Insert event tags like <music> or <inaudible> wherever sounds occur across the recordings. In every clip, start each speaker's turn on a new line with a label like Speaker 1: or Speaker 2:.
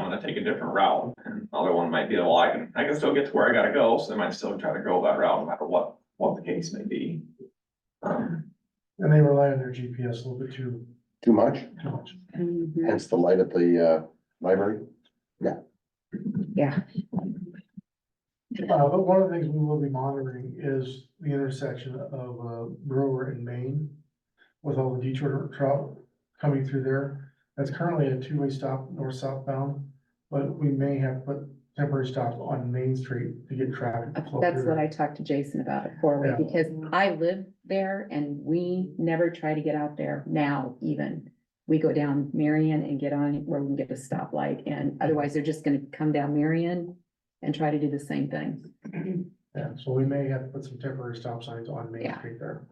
Speaker 1: wanna take a different route, and the other one might be, well, I can, I can still get to where I gotta go, so they might still try to go that route, no matter what, what the case may be. Um,
Speaker 2: And they rely on their GPS a little bit too,
Speaker 3: Too much,
Speaker 2: too much.
Speaker 4: Mhm.
Speaker 3: hence the light at the uh library.
Speaker 4: Yeah,
Speaker 2: Uh, but one of the things we will be monitoring is the intersection of uh, Brewer and Main. With all the detour trout coming through there, that's currently a two-way stop north southbound. But we may have to put temporary stops on Main Street to get traffic to flow
Speaker 4: that's what
Speaker 2: through.
Speaker 4: I talked to Jason about it for,
Speaker 2: Yeah.
Speaker 4: because I live there and we never try to get out there now even. We go down Marion and get on where we can get a stoplight, and otherwise they're just gonna come down Marion and try to do the same thing.
Speaker 2: Yeah, so we may have to put some temporary stop signs on Main
Speaker 4: Yeah.
Speaker 2: Street there.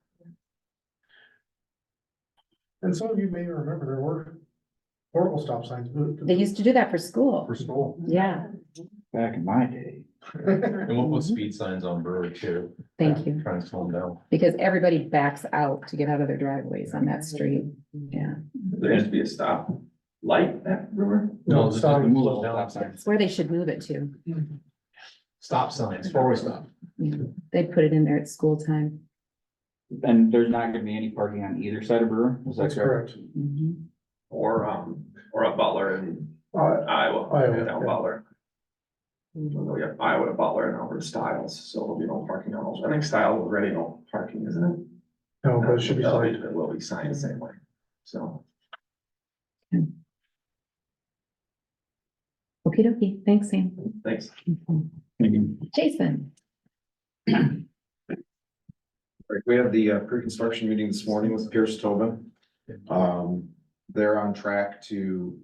Speaker 2: And some of you may remember there were portable stop signs. but-
Speaker 4: They used to do that for school,
Speaker 2: For school.
Speaker 4: yeah,
Speaker 5: Back in my day.
Speaker 6: And we'll put speed signs on Brewer too.
Speaker 4: thank you,
Speaker 6: Trying to slow them down.
Speaker 4: because everybody backs out to get out of their driveways on that street, yeah.
Speaker 1: there needs to be a stop light at Brewer,
Speaker 2: No,
Speaker 6: just-
Speaker 2: stop-
Speaker 6: just slow down.
Speaker 4: That's where they should move it to,
Speaker 6: Stop signs, four-way stop.
Speaker 4: they put it in there at school time.
Speaker 5: And there's not gonna be any parking on either side of Brewer, is that
Speaker 2: That's
Speaker 5: correct?
Speaker 2: correct.
Speaker 4: Mhm.
Speaker 1: or, um, or a Butler in
Speaker 2: Uh,
Speaker 1: Iowa,
Speaker 2: Iowa,
Speaker 1: down
Speaker 2: yeah.
Speaker 1: Butler. Although we have Iowa, to Butler, and over to Styles, so there'll be no parking on those, I think Styles already no parking, isn't it?
Speaker 2: no, but it should be
Speaker 1: That'll
Speaker 2: signed.
Speaker 1: It will be signed the same way, so.
Speaker 4: Okey dokey, thanks, Sam.
Speaker 1: Thanks.
Speaker 4: Jason,
Speaker 7: Right, we had the uh, pre-construction meeting this morning with Pierce Tobin. Um, they're on track to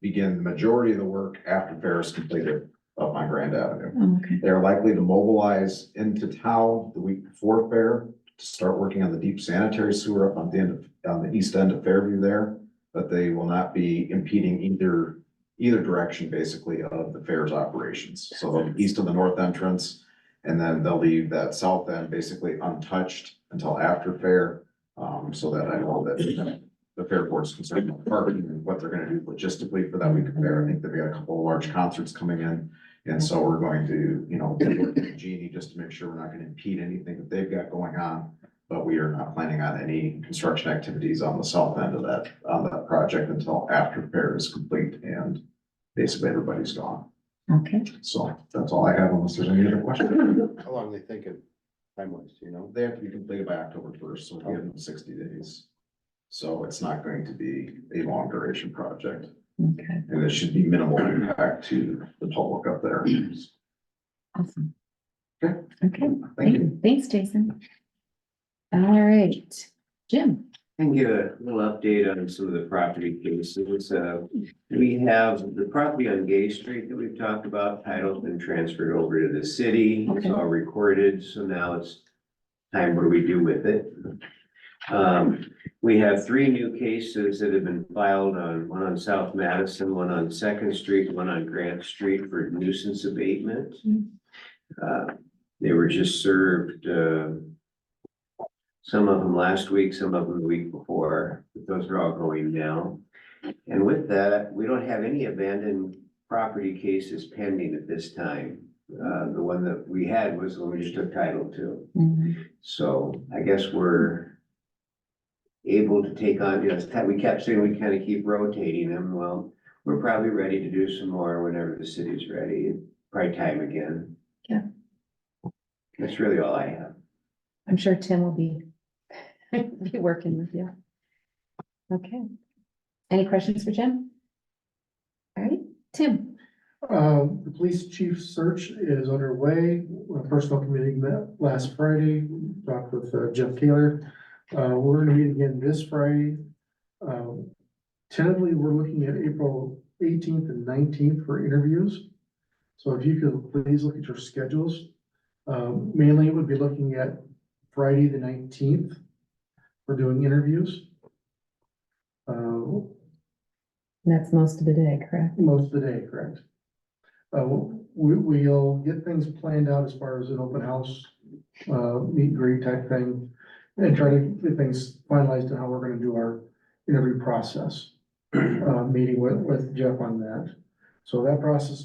Speaker 7: begin the majority of the work after Paris completed up on Grand Avenue.
Speaker 4: Oh, okay.
Speaker 7: They're likely to mobilize into town the week before fair to start working on the deep sanitary sewer up on the end of, on the east end of Fairview there. But they will not be impeding either, either direction basically of the fair's operations. So they'll be east of the north entrance. And then they'll leave that south end basically untouched until after fair. Um, so that I know that the fair board's concerned about parking and what they're gonna do logistically for that week of fair. I think they've got a couple of large concerts coming in. And so we're going to, you know, work with Genie just to make sure we're not gonna impede anything that they've got going on. But we are not planning on any construction activities on the south end of that, on that project until after fair is complete and basically everybody's gone.
Speaker 4: Okay.
Speaker 7: So that's all I have unless there's any other
Speaker 3: <laughs>
Speaker 7: questions.
Speaker 3: How long they thinking? Time wise, you know?
Speaker 7: They have to be completed by October first, so we give them sixty days. So it's not going to be a long duration project
Speaker 4: Okay,
Speaker 7: and it should be minimal impact to the public up there.
Speaker 4: awesome.
Speaker 7: Okay.
Speaker 4: Okay,
Speaker 7: Thank
Speaker 4: thank
Speaker 7: you.
Speaker 4: you. Thanks, Jason. All right, Jim.
Speaker 8: I can give a little update on some of the property cases. Uh, we have the property on Gay Street that we've talked about, title's been transferred over to the city. It's
Speaker 4: Okay.
Speaker 8: all recorded, so now it's time what do we do with it? Um, we have three new cases that have been filed on, one on South Madison, one on Second Street, one on Grant Street for nuisance abatement. Uh, they were just served, uh, some of them last week, some of them the week before, but those are all going now. And with that, we don't have any abandoned property cases pending at this time. Uh, the one that we had was the one we just took title to. So I guess we're able to take on, you know, it's ti- we kept saying we kind of keep rotating them. Well, we're probably ready to do some more whenever the city's ready, probably time again.
Speaker 4: Yeah.
Speaker 8: That's really all I have.
Speaker 4: I'm sure Tim will be, <laughs> be working with you. Okay. Any questions for Jim? All right, Tim.
Speaker 2: Um, the police chief search is underway. A personal committee met last Friday, talked with uh, Jeff Taylor. Uh, we're gonna meet again this Friday. Um, tentatively, we're looking at April eighteenth and nineteenth for interviews. So if you could please look at your schedules. Um, mainly we'd be looking at Friday, the nineteenth. for doing interviews. Uh,
Speaker 4: That's most of the day, correct?
Speaker 2: most of the day, correct? Uh, we, we'll get things planned out as far as an open house, uh, meet and greet type thing. And try to get things finalized on how we're gonna do our interview process, uh, meeting with, with Jeff on that. So that process